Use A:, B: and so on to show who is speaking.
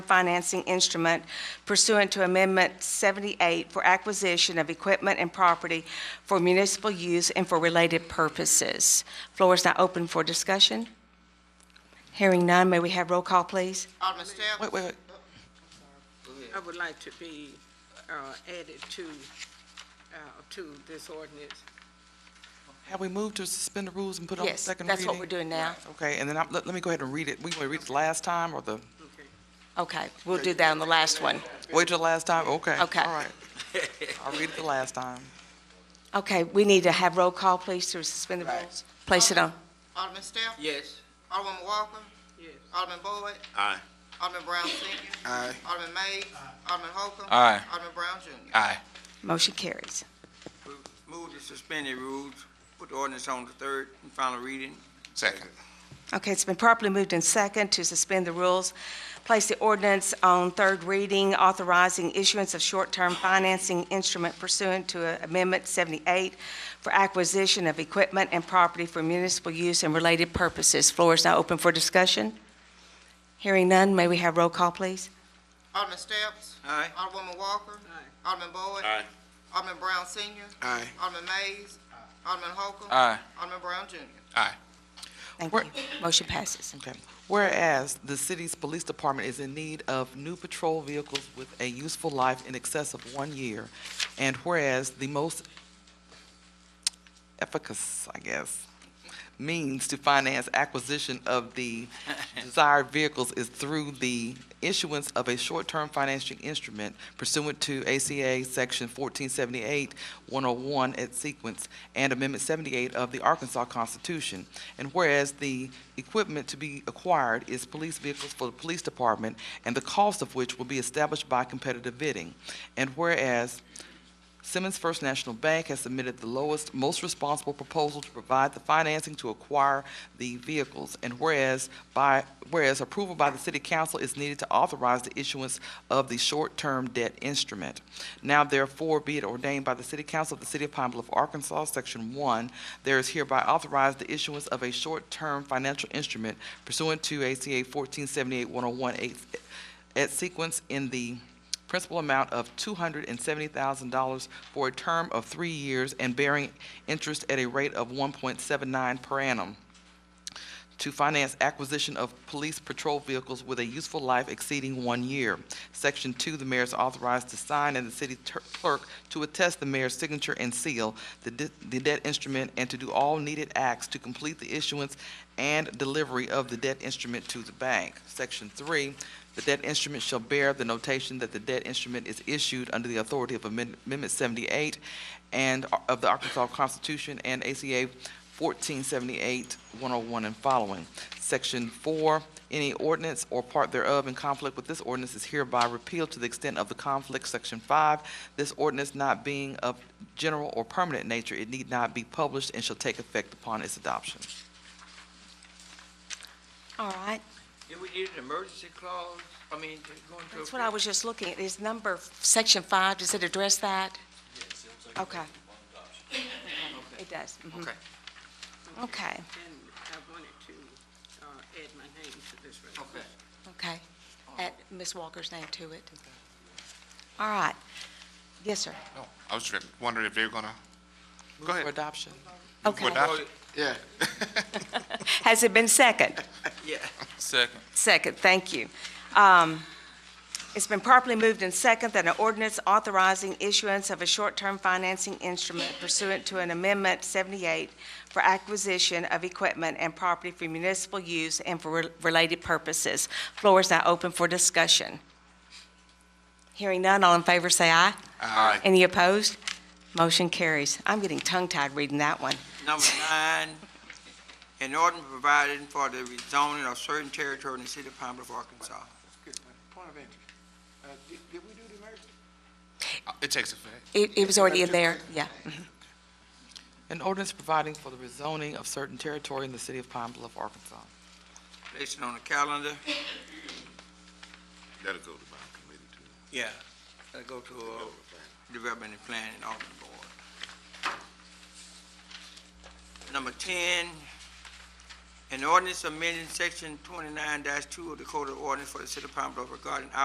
A: financing instrument pursuant to Amendment 78 for acquisition of equipment and property for municipal use and for related purposes. Floor is now open for discussion. Hearing none, may we have roll call, please?
B: Alderman Steph?
C: Wait, wait, wait.
D: I would like to be uh, added to, uh, to this ordinance.
C: Have we moved to suspend the rules and put on the
A: Yes,
C: Oh, second reading?
A: that's what we're doing now.
C: Okay, and then I, let, let me go ahead and read it. We going to read it last time or the,
D: Okay.
A: Okay, we'll do that on the last one.
C: wait till the last time? Okay.
A: Okay.
C: All right. I'll read it the last time.
A: Okay, we need to have roll call, please, to suspend the rules. Place it on.
B: Alderman Steph?
E: Yes.
B: Alderman Walker?
D: Yes.
B: Alderman Boyd?
E: Aye.
B: Alderman Brown Senior?
E: Aye.
B: Alderman May? Alderman Holcomb?
E: Aye.
B: Alderman Brown Junior?
E: Aye.
A: Motion carries.
E: Move to suspend the rules, put the ordinance on the third and final reading. Second.
A: Okay, it's been properly moved in second to suspend the rules, place the ordinance on third reading authorizing issuance of short-term financing instrument pursuant to Amendment 78 for acquisition of equipment and property for municipal use and related purposes. Floor is now open for discussion. Hearing none, may we have roll call, please?
B: Alderman Steph?
E: Aye.
B: Alderwoman Walker?
D: Aye.
B: Alderman Boyd?
E: Aye.
B: Alderman Brown Senior?
E: Aye.
B: Alderman Mays? Alderman Holcomb?
E: Aye.
B: Alderman Brown Junior?
A: Thank you.
C: We're-
A: Motion passes.
C: Okay. Whereas the city's police department is in need of new patrol vehicles with a useful life in excess of one year, and whereas the most efficacious, I guess, means to finance acquisition of the desired vehicles is through the issuance of a short-term financing instrument pursuant to ACA Section 1478, 101 at sequence, and Amendment 78 of the Arkansas Constitution. And whereas the equipment to be acquired is police vehicles for the police department, and the cost of which will be established by competitive bidding. And whereas Simmons First National Bank has submitted the lowest, most responsible proposal to provide the financing to acquire the vehicles. And whereas by, whereas approval by the city council is needed to authorize the issuance of the short-term debt instrument. Now therefore be it ordained by the city council of the city of Pine Bluff, Arkansas, section one, there is hereby authorized the issuance of a short-term financial instrument pursuant to ACA fourteen seventy-eight one oh one eight at sequence in the principal amount of $270,000 for a term of three years and bearing interest at a rate of 1.79 per annum to finance acquisition of police patrol vehicles with a useful life exceeding one year. Section two, the mayor is authorized to sign and the city ter- clerk to attest the mayor's signature and seal the de- the debt instrument and to do all needed acts to complete the issuance and delivery of the debt instrument to the bank. Section three, the debt instrument shall bear the notation that the debt instrument is issued under the authority of Amend- Amendment 78 and of the Arkansas Constitution and ACA 1478, 101, and following. Section 4, any ordinance or part thereof in conflict with this ordinance is hereby repealed to the extent of the conflict. Section 5, this ordinance not being of general or permanent nature, it need not be published and shall take effect upon its adoption.
A: All right,
E: If we need an emergency clause, I mean, to go into.
A: that's what I was just looking at. Is number, section five, does it address that? Okay. It does. mhm.
E: Okay.
A: Okay,
D: And I wanted to uh, add my name to this resolution.
E: Okay.
A: okay. Add Ms. Walker's name to it. All right. Yes, sir.
F: No, I was just wondering if they were gonna, go
C: For
F: ahead.
C: adoption.
A: Okay.
F: Would I-
E: Yeah.
A: Has it been second?
E: Yeah.
F: Second.
A: Second, thank you. Um, It's been properly moved and second that an ordinance authorizing issuance of a short-term financing instrument pursuant to an Amendment 78 for acquisition of equipment and property for municipal use and for re- related purposes. Floor is now open for discussion. Hearing none, all in favor say aye.
F: Aye.
A: Any opposed? Motion carries. I'm getting tongue-tied reading that one.
E: Number nine, an ordinance providing for the rezoning of certain territory in the city of Pine Bluff, Arkansas.
G: Point of interest. Uh, did, did we do the emergency?
F: It takes effect.
A: It it was already in there, yeah.
C: An ordinance providing for the rezoning of certain territory in the city of Pine Bluff, Arkansas.
E: Place it on the calendar.
F: That'll go to my committee too.
E: Yeah. That'll go to, uh, Development and Planning Alderman Board. Number ten, an ordinance amending section twenty-nine two of the Code of Ordinance for the City of Pine Bluff regarding